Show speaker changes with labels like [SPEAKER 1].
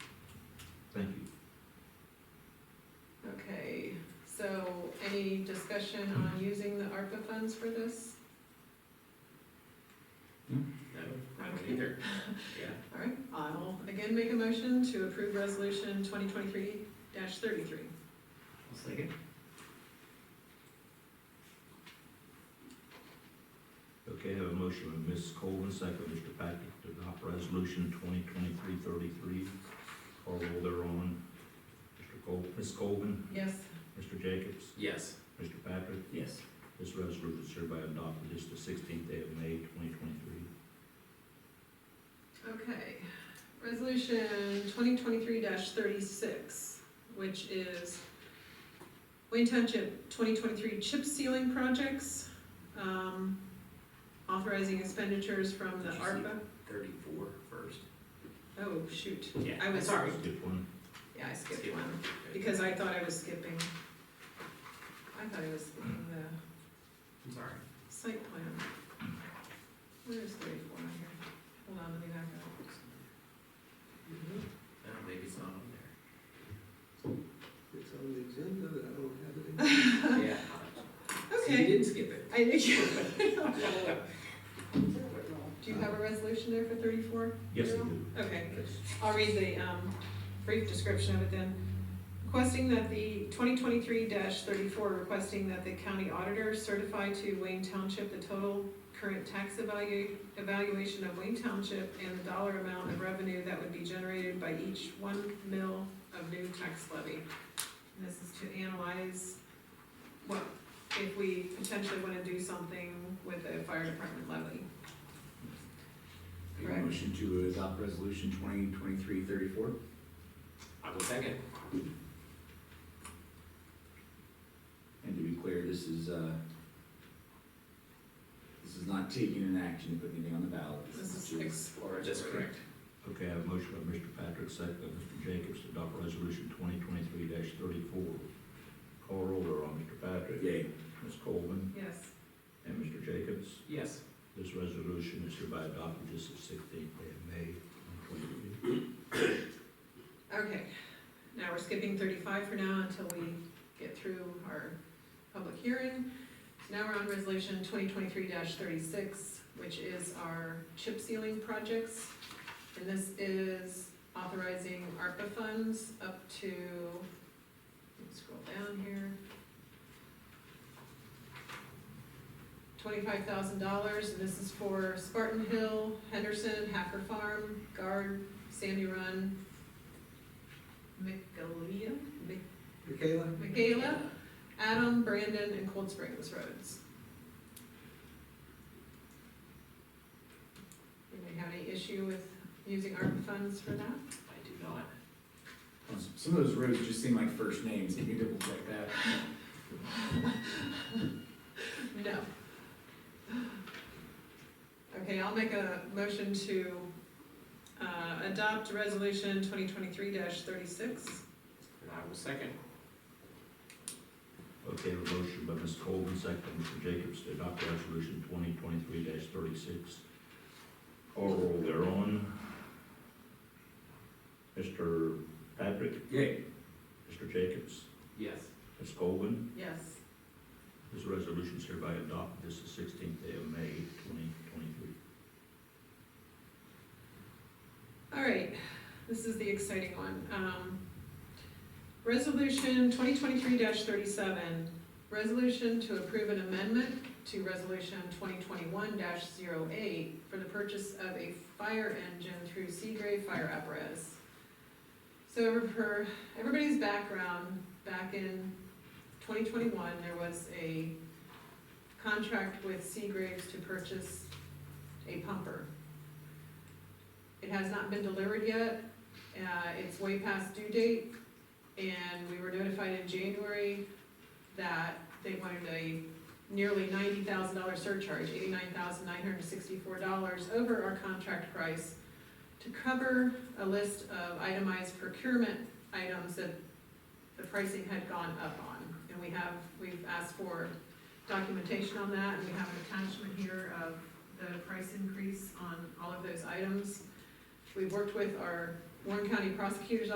[SPEAKER 1] Thank you.
[SPEAKER 2] Okay, so any discussion on using the ARPA funds for this?
[SPEAKER 3] No, I don't either, yeah.
[SPEAKER 2] All right, I'll again make a motion to approve resolution twenty twenty-three thirty-three.
[SPEAKER 3] I'll second.
[SPEAKER 1] Okay, I have a motion by Ms. Colvin, second by Mr. Patrick, to adopt resolution 2023-33. Call roll thereon. Mr. Col, Ms. Colvin,
[SPEAKER 2] Yes,
[SPEAKER 1] Mr. Jacobs,
[SPEAKER 3] Yes.
[SPEAKER 1] Mr. Patrick.
[SPEAKER 3] Yes.
[SPEAKER 1] This resolution is hereby adopted this the sixteenth day of May, twenty twenty-three.
[SPEAKER 2] okay. Resolution twenty twenty-three thirty-six, which is Wayne Township twenty twenty-three chip sealing projects, um, authorizing expenditures from the
[SPEAKER 3] Did you see-
[SPEAKER 2] ARPA.
[SPEAKER 3] Thirty-four first.
[SPEAKER 2] Oh, shoot,
[SPEAKER 3] Yeah.
[SPEAKER 2] I was, sorry,
[SPEAKER 1] Skip one.
[SPEAKER 2] yeah, I skipped
[SPEAKER 3] Skip.
[SPEAKER 2] one.
[SPEAKER 3] Okay.
[SPEAKER 2] Because I thought I was skipping, I thought I was skipping the
[SPEAKER 3] I'm sorry.
[SPEAKER 2] site plan. Where is thirty-four on here? Hold on, let me back up.
[SPEAKER 4] Mm-hmm.
[SPEAKER 3] No, maybe it's not on
[SPEAKER 4] It's on the agenda, but I don't have it.
[SPEAKER 3] there. Yeah. So you
[SPEAKER 2] Okay.
[SPEAKER 3] didn't skip it.
[SPEAKER 2] I, do you have a resolution there for thirty-four?
[SPEAKER 1] Yes, I do.
[SPEAKER 2] Okay.
[SPEAKER 1] Yes.
[SPEAKER 2] I'll read the um, brief description of it then. Requesting that the twenty twenty-three thirty-four, requesting that the county auditor certify to Wayne Township the total current tax evalu- evaluation of Wayne Township and the dollar amount of revenue that would be generated by each one mil of new tax levy. And This is to analyze what, if we potentially wanna do something with the fire department levy.
[SPEAKER 5] Make a motion to adopt resolution twenty twenty-three thirty-four?
[SPEAKER 3] I will second.
[SPEAKER 5] And to be clear, this is, uh, this is not taking an action to put anything on the ballot.
[SPEAKER 2] This is
[SPEAKER 5] just-
[SPEAKER 2] exploratory.
[SPEAKER 3] That's correct.
[SPEAKER 1] Okay, I have a motion by Mr. Patrick, second by Mr. Jacobs, to adopt resolution twenty twenty-three thirty-four. Call roll thereon. Mr. Patrick.
[SPEAKER 5] Yay.
[SPEAKER 1] Ms. Colvin
[SPEAKER 2] Yes.
[SPEAKER 1] and Mr. Jacobs.
[SPEAKER 3] Yes.
[SPEAKER 1] This resolution is hereby adopted this the sixteenth day of May, twenty twenty-three.
[SPEAKER 2] Okay, now we're skipping thirty-five for now until we get through our public hearing. So now we're on resolution twenty twenty-three thirty-six, which is our chip sealing projects. And this is authorizing ARPA funds up to, let me scroll down here. Twenty-five thousand dollars, and this is for Spartan Hill, Henderson, Hacker Farm, Guard, Sandy Run, Michaelia, Mi-
[SPEAKER 4] Michaela?
[SPEAKER 2] Michaela,
[SPEAKER 3] Uh,
[SPEAKER 2] Adam, Brandon, and Cold Springs roads. Anybody have any issue with using ARPA funds for that?
[SPEAKER 3] I do not.
[SPEAKER 5] Um, Some of those roads just seem like first names, can you double check that?
[SPEAKER 2] No. Okay, I'll make a motion to, uh, adopt resolution twenty twenty-three thirty-six.
[SPEAKER 3] And I will second.
[SPEAKER 1] Okay, I have a motion by Ms. Colvin, second by Mr. Jacobs, to adopt resolution twenty twenty-three thirty-six. Call roll thereon. Mr. Patrick,
[SPEAKER 5] Yay.
[SPEAKER 1] Mr. Jacobs,
[SPEAKER 3] Yes.
[SPEAKER 1] Ms. Colvin,
[SPEAKER 2] Yes.
[SPEAKER 1] This resolution is hereby adopted this is sixteenth day of May, twenty twenty-three.
[SPEAKER 2] All right, this is the exciting one. Um, Resolution twenty twenty-three thirty-seven, resolution to approve an amendment to resolution twenty twenty-one 8 for the purchase of a fire engine through Seagrave Fire Apparatus. So for everybody's background, back in twenty twenty-one, there was a contract with Seagraves to purchase a pumper. It has not been delivered yet, uh, it's way past due date, and we were notified in January that they wanted a nearly ninety thousand dollar surcharge, eighty-nine thousand nine hundred sixty-four dollars over our contract price to cover a list of itemized procurement items that the pricing had gone up on. And we have, we've asked for documentation on that, and we have an attachment here of the price increase on all of those items. We've worked with our Warren County Prosecutor's